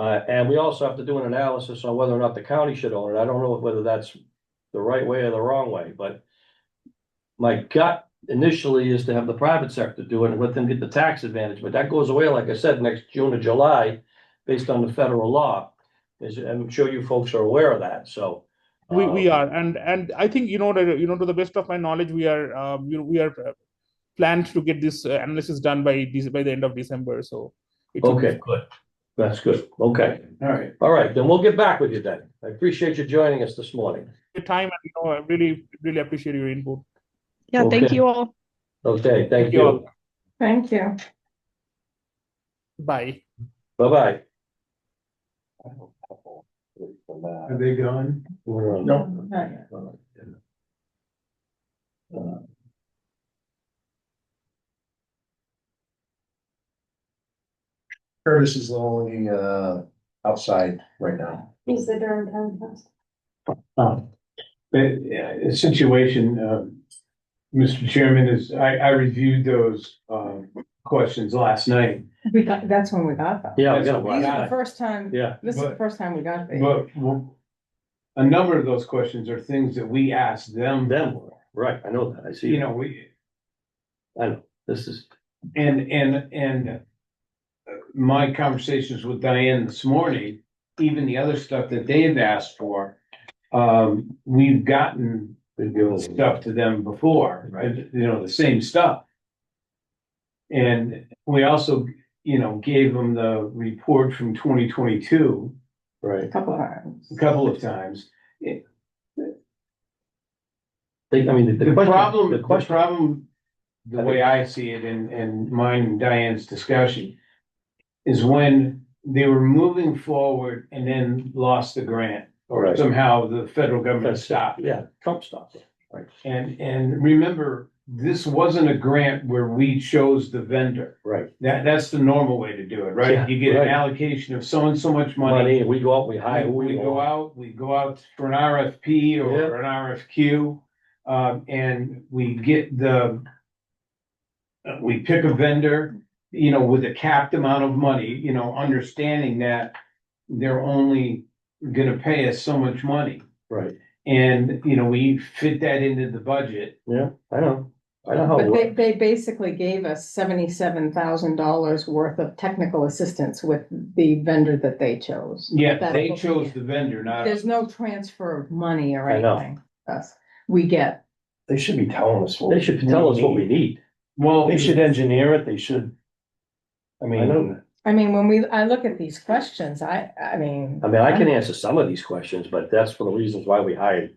Uh, and we also have to do an analysis on whether or not the county should own it. I don't know whether that's the right way or the wrong way, but. My gut initially is to have the private sector do it and let them get the tax advantage, but that goes away, like I said, next June or July. Based on the federal law, As I'm sure you folks are aware of that, so. We, we uh, are, and, and I think, you know, that, you know, to the best of my knowledge, we are, uh, you know, we are uh, planned to get this uh, analysis done by, Dec- by the end of December, so. it should be- Okay, good. That's good. Okay. All right, All right, then we'll get back with you then. I appreciate you joining us this morning. Your time, and, you know, I really, really appreciate your input. Yeah, thank Okay. you all. Okay, thank Thank you all. you. Thank you. Bye. Bye-bye. are they gone? uh, No. Not yet. Curtis is the only, uh, outside right now. He's the Durham Town Council. Um, The uh, situation, um, Mr. Chairman, is I, I reviewed those um, questions last night. We got, that's when we got them. uh, Yeah, I got it These last are the night. first time, Yeah, this is the first time we got these. But w- a number of those questions are things that we asked them. them, were. right, I know that. I see. You know, we, I know, this is, and, and, and uh, my conversations with Diane this morning, even the other stuff that they've asked for, um, we've gotten stuff to them before, right? You know, the same stuff. And we also, you know, gave them the report from twenty twenty-two right. A couple of times. a couple of times. They, I mean, the- The the problem, question, the the question, problem, the way I see it and, and mine and Diane's discussion is when they were moving forward and then lost the grant. all right, Somehow the federal government That's- stopped. yeah, Trump stopped it. And, and remember, this wasn't a grant where we chose the vendor. Right. That, that's the normal way to do it, Yeah, right? You get right. an allocation of so and so much money. Money, we go out, we hire, who We we we go go out. out, we go out for an RFP Yeah. or an RFQ, um, and we get the. uh, We pick a vendor, you know, with a capped amount of money, you know, understanding that they're only gonna pay us so much money. Right, And, you know, we fit that into the budget yeah, I know, I know how it But they, works. they basically gave us seventy-seven thousand dollars worth of technical assistance with the vendor that they chose. Yeah, That'll they go- chose the vendor, not, There's no transfer of money or I know. anything. Us, we get, They should be telling us. what They should tell us what we need. well, They should engineer it, they should. I I know. mean, I mean, when we, I look at these questions, I, I mean, I mean, I can answer some of these questions, but that's for the reasons why we hired,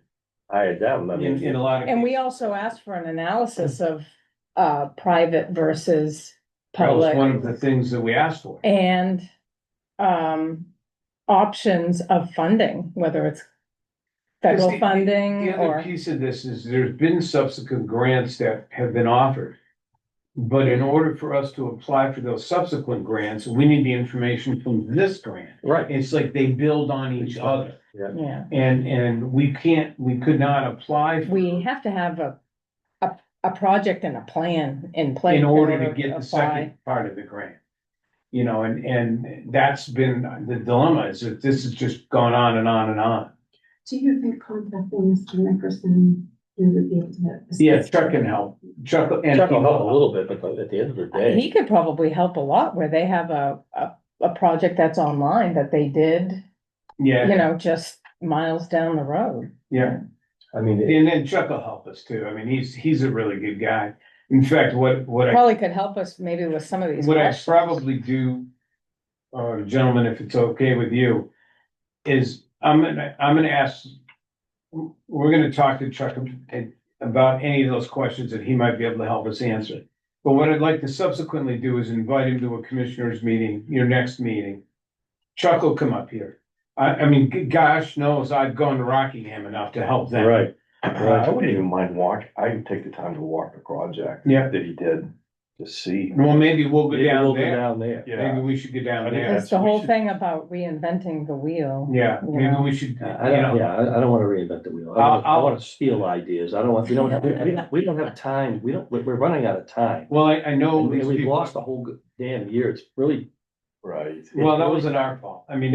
hired them. I in, in mean, a lot of. and we cases, also asked for an analysis Mm. of, uh, private versus That public. was one of the things that we asked for. And um options of funding, whether it's the- federal the- funding The other Mm, or, piece of this is there's been subsequent grants that have been offered. But in order for us to apply for those subsequent grants, we need the information from this grant. right, It's like they build on each other yeah, and, and we can't, we could not apply for- we have to have a a a project and a plan in place. in order to get the apply. second part of the grant. You know, and, and that's been the dilemma is that this has just gone on and on and on. Do you think contacting Mr. Nickerson, he would be able to? Yeah, Chuck can help. Chuck and. check them out a little bit, but at the end of the day, He could probably help a lot where they have a a a project that's online that they did, Yeah. you know, just miles down the road. Yeah, I mean, it- and then Chuck will help us too. I mean, he's, he's a really good guy. In fact, what, what I, Probably could help us maybe with some of these what I questions. probably do, uh, gentlemen, if it's okay with you, is I'm gonna, I'm gonna ask, we're gonna talk to Chuck and- about any of those questions that he might be able to help us answer. But what I'd like to subsequently do is invite him to a commissioners meeting, your next meeting. Chuck will come up here. I, I mean, g- gosh knows I've gone to Rockingham enough to help them. right, I wouldn't even mind walk, I'd take the time to walk the project. Yeah. That he did, to see. Well, maybe we'll go Maybe we'll go down there. down there. Maybe we should go down I think there. It's that's- the we whole should- thing about reinventing the wheel. Yeah, maybe Yeah. we should, you I don't, know, yeah, I, I don't wanna reinvent the wheel. I I'll- wanna- I I'll- wanna steal ideas. I don't want, we don't, we- we, don't- we don't have time. We don't, we're, we're running out of time. well, I, I know. And we- these we've people- lost a whole g- damn year. It's really Right. Well, that wasn't our fault. I mean,